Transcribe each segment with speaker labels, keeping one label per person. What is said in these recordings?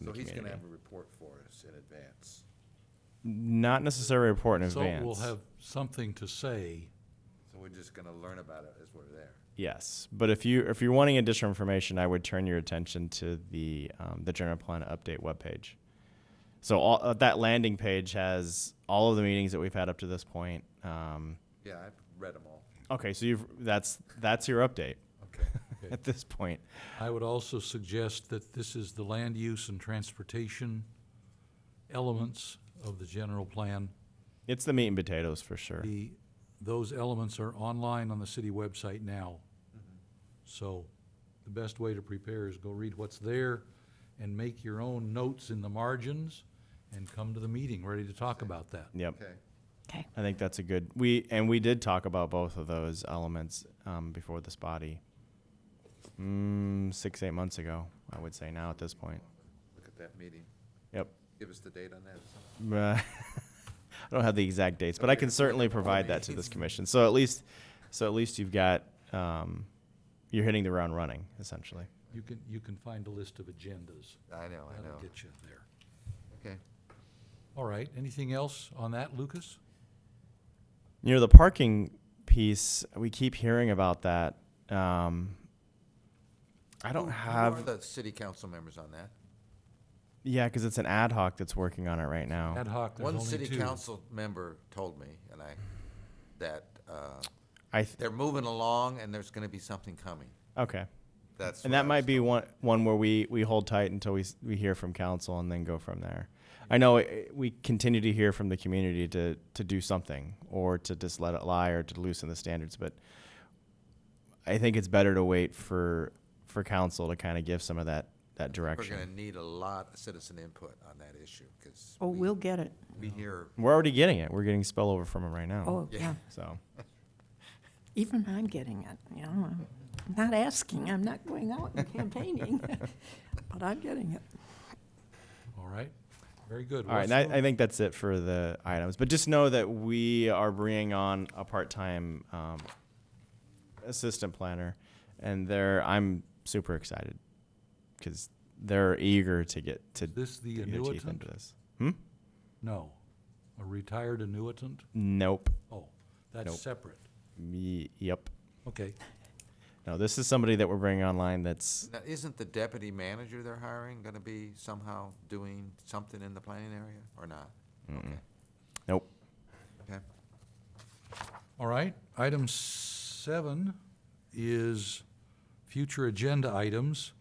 Speaker 1: in
Speaker 2: So
Speaker 1: the
Speaker 2: he's
Speaker 1: community.
Speaker 2: gonna have a report for us in advance.
Speaker 1: Not necessarily a report in
Speaker 3: So
Speaker 1: advance.
Speaker 3: we'll have something to say.
Speaker 2: So we're just gonna learn about it as we're there.
Speaker 1: Yes, but if you if you're wanting additional information, I would turn your attention to the um, the general plan update webpage. So all uh, that landing page has all of the meetings that we've had up to this point. Um,
Speaker 2: Yeah, I've read them all.
Speaker 1: okay, so you've that's that's your update
Speaker 2: Okay.
Speaker 1: at this point.
Speaker 3: I would also suggest that this is the land use and transportation elements of the general plan.
Speaker 1: It's the meat and potatoes for sure.
Speaker 3: The, those elements are online on the city website now.
Speaker 1: Mm-hmm.
Speaker 3: So the best way to prepare is go read what's there and make your own notes in the margins and come to the meeting ready to talk about that.
Speaker 1: Yep.
Speaker 2: Okay.
Speaker 4: Okay.
Speaker 1: I think that's a good we and we did talk about both of those elements um, before this body. Mm, six eight months ago, I would say now at this point.
Speaker 2: Look at that meeting.
Speaker 1: Yep.
Speaker 2: Give us the date on that. or something.
Speaker 1: Uh, I don't have the exact dates, but I can certainly provide that to this commission. So at least, so at least you've got, um, you're hitting the ground running, essentially.
Speaker 3: You can, you can find a list of agendas.
Speaker 2: I
Speaker 1: Oh,
Speaker 2: know, I
Speaker 3: That'll
Speaker 2: know.
Speaker 3: get you there.
Speaker 2: Okay.
Speaker 3: All right, anything else on that, Lucas?
Speaker 1: You know, the parking piece, we keep hearing about that. Um, I don't
Speaker 2: Who
Speaker 1: have,
Speaker 2: Oh, are the city council members on that?
Speaker 1: yeah, because it's an ad hoc that's working on it right now.
Speaker 3: Ad hoc, there's
Speaker 2: One
Speaker 3: only two.
Speaker 2: city council member told me, and I, that, uh,
Speaker 1: I, th-
Speaker 2: they're moving along and there's gonna be something coming.
Speaker 1: okay.
Speaker 2: That's.
Speaker 1: And
Speaker 2: what I
Speaker 1: that might
Speaker 2: was
Speaker 1: be one, one where we, we hold tight until we, s- we hear from council and then go from there. I know eh, we continue to hear from the community to, to do something or to just let it lie or to loosen the standards, but I think it's better to wait for, for council to kind of give some of that, that
Speaker 2: We're gonna
Speaker 1: direction.
Speaker 2: need a lot of citizen input on that issue, because.
Speaker 4: Oh, we'll get it.
Speaker 2: We hear,
Speaker 1: We're already getting it. We're getting spillover from them right now.
Speaker 4: Oh,
Speaker 2: Yeah.
Speaker 4: yeah.
Speaker 1: So,
Speaker 4: Even I'm getting it, you know. I'm not asking, I'm not going out and campaigning, but I'm getting it.
Speaker 3: All right, very good.
Speaker 1: all right.
Speaker 3: What's
Speaker 1: And I,
Speaker 3: the-
Speaker 1: I think that's it for the items, but just know that we are bringing on a part-time, um, assistant planner, and they're I'm super excited because they're eager to get to
Speaker 3: This the
Speaker 1: get their teeth into
Speaker 3: annuitant?
Speaker 1: this. Hmm?
Speaker 3: No, a retired annuitant?
Speaker 1: Nope.
Speaker 3: Oh, that's
Speaker 1: Nope.
Speaker 3: separate.
Speaker 1: Me, yep.
Speaker 3: Okay,
Speaker 1: No, this is somebody that we're bringing online. That's
Speaker 2: now, isn't the deputy manager they're hiring gonna be somehow doing something in the planning area, or not? Okay.
Speaker 1: nope.
Speaker 2: Okay.
Speaker 3: all right. Item seven is future agenda items.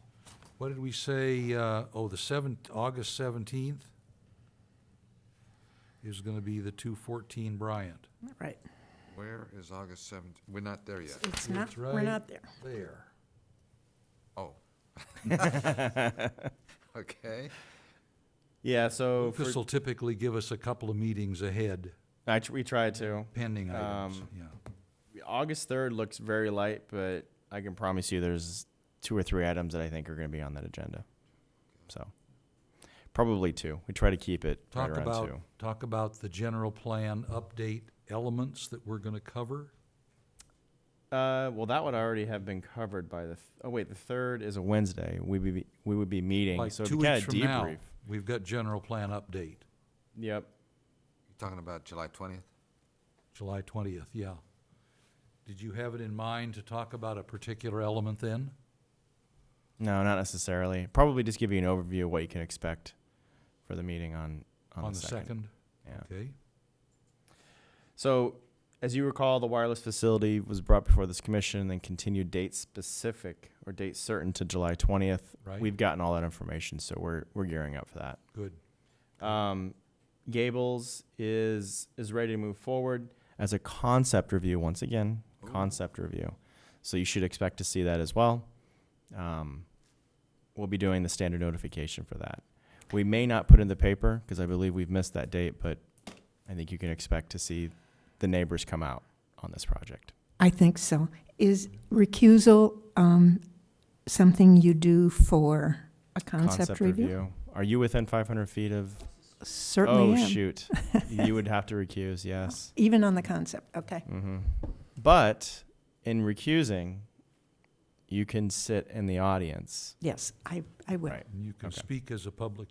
Speaker 3: What did we say, uh, oh, the seventh, August seventeenth is gonna be the two fourteen Bryant.
Speaker 4: Right.
Speaker 2: Where is August seventh? We're not there yet.
Speaker 4: It's not,
Speaker 3: It's
Speaker 4: we're
Speaker 3: right
Speaker 4: not there.
Speaker 3: There.
Speaker 2: Oh. Okay.
Speaker 1: Yeah. So for,
Speaker 3: This will typically give us a couple of meetings ahead,
Speaker 1: I tr- we tried to.
Speaker 3: pending items,
Speaker 1: Um,
Speaker 3: yeah.
Speaker 1: August third looks very light, but I can promise you there's two or three items that I think are going to be on that agenda. So probably two. We try to keep it
Speaker 3: Talk
Speaker 1: right around
Speaker 3: about,
Speaker 1: two.
Speaker 3: talk about the general plan update elements that we're gonna cover.
Speaker 1: Uh, well, that would already have been covered by the. Th- oh wait, the third is a Wednesday. We be we would be meeting,
Speaker 3: Like
Speaker 1: so
Speaker 3: two
Speaker 1: kind
Speaker 3: weeks
Speaker 1: of
Speaker 3: from now,
Speaker 1: debrief.
Speaker 3: we've got general plan update,
Speaker 1: Yep.
Speaker 2: Talking about July twentieth?
Speaker 3: July twentieth, yeah. Did you have it in mind to talk about a particular element then?
Speaker 1: No, not necessarily. Probably just give you an overview of what you can expect for the meeting on on,
Speaker 3: On the second?
Speaker 1: Yeah.
Speaker 3: Okay,
Speaker 1: So, as you recall, the wireless facility was brought before this commission and then continued date specific or date certain to July 20th.
Speaker 3: Right.
Speaker 1: We've gotten all that information, so we're, we're gearing up for that.
Speaker 3: good.
Speaker 1: Um, Gables is is ready to move forward as a concept review once again. Concept review, so you should expect to see that as well. Um, we'll be doing the standard notification for that. We may not put in the paper because I believe we've missed that date, but I think you can expect to see the neighbors come out on this project.
Speaker 4: I think so. Is recusal um, something you do for a concept review?
Speaker 1: Are you within 500 feet of?
Speaker 4: Certainly
Speaker 1: oh
Speaker 4: am.
Speaker 1: shoot, you would have to recuse. Yes.
Speaker 4: Even on the concept, okay.
Speaker 1: Mm-hmm. But in recusing, you can sit in the audience.
Speaker 4: Yes, I, I will.
Speaker 1: Right.
Speaker 3: And you can
Speaker 1: Okay.
Speaker 3: speak as a public